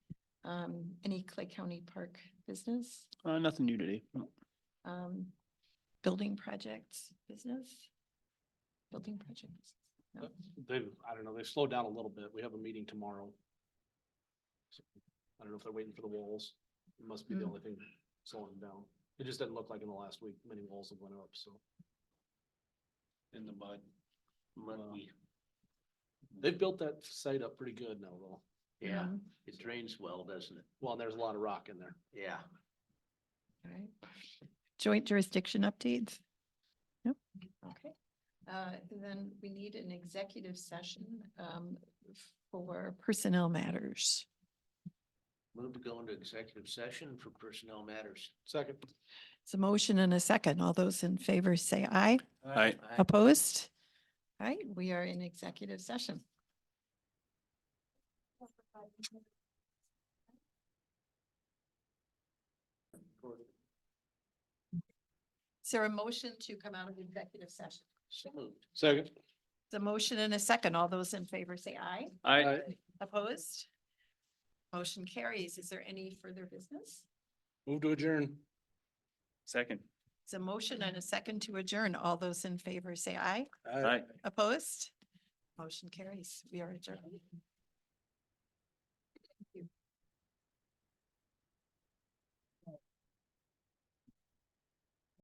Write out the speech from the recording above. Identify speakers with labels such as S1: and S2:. S1: um, any Clay County Park business,
S2: Uh, nothing new today.
S1: um, building projects business? Building projects? No.
S3: They've, I don't know, they've slowed down a little bit. We have a meeting tomorrow. So, I don't know if they're waiting for the walls. It Must be the
S1: Mm.
S3: only thing slowing them down. It just doesn't look like in the last week, many walls have went up, so.
S4: in the mud.
S3: Wow.
S4: Muddy.
S3: They've built that site up pretty good now, though.
S4: Yeah,
S1: Um,
S4: it drains well, doesn't it?
S3: Well, and there's a lot of rock in there.
S4: Yeah.
S1: All right. Joint jurisdiction updates? Nope. Okay. Uh, and then we need an executive session, um, for personnel matters.
S4: Move to go into executive session for personnel matters.
S3: Second.
S1: It's a motion and a second. All those in favor say aye.
S2: Aye.
S4: Aye.
S1: Opposed? All right, we are in executive session. Is there a motion to come out of executive session?
S4: So moved.
S3: Second.
S1: The motion and a second. All those in favor say aye.
S2: I,
S1: Opposed? Motion carries. Is there any further business?
S3: Move to adjourn.
S2: second.
S1: It's a motion and a second to adjourn. All those in favor say aye.
S2: Aye.
S1: Opposed? Motion carries. We are adjourned.